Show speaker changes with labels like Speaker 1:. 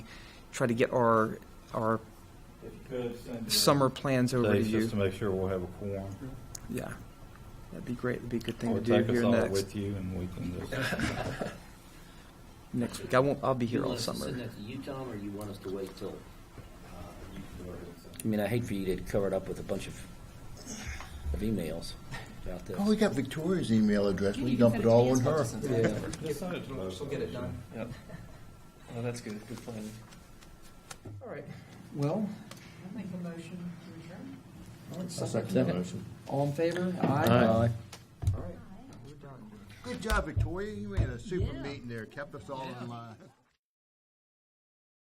Speaker 1: try to get our, our
Speaker 2: If you could, send your
Speaker 1: summer plans over to
Speaker 2: dates just
Speaker 1: you.
Speaker 2: to make sure we'll have a quorum.
Speaker 1: Yeah. That'd be great. It'd be a good thing
Speaker 2: Or
Speaker 1: to do
Speaker 2: take us
Speaker 1: here
Speaker 2: all
Speaker 1: next,
Speaker 2: with you and we can just,
Speaker 1: next week. I won't, I'll be here
Speaker 3: You
Speaker 1: all
Speaker 3: want us to
Speaker 1: summer.
Speaker 3: Send that to you, Tom, or you want us to wait till? uh, I mean, I hate for you to cover it up with a bunch of, of emails about this.
Speaker 4: Oh, we got Victoria's email address. We
Speaker 5: You
Speaker 4: can
Speaker 5: can
Speaker 4: dump it
Speaker 5: send it to me
Speaker 4: all
Speaker 5: as
Speaker 4: on
Speaker 5: much
Speaker 4: her.
Speaker 5: as it's-
Speaker 3: Yeah.
Speaker 6: Just send it to us, we'll get it done.
Speaker 1: Yep.
Speaker 6: Well, that's good, good planning. All right,
Speaker 7: Well,
Speaker 5: I'll make a motion to adjourn.
Speaker 4: I'll second that motion.
Speaker 7: all in favor?
Speaker 4: Good job, Victoria. You had a super
Speaker 5: Yeah.
Speaker 4: meeting there. Kept us all in line.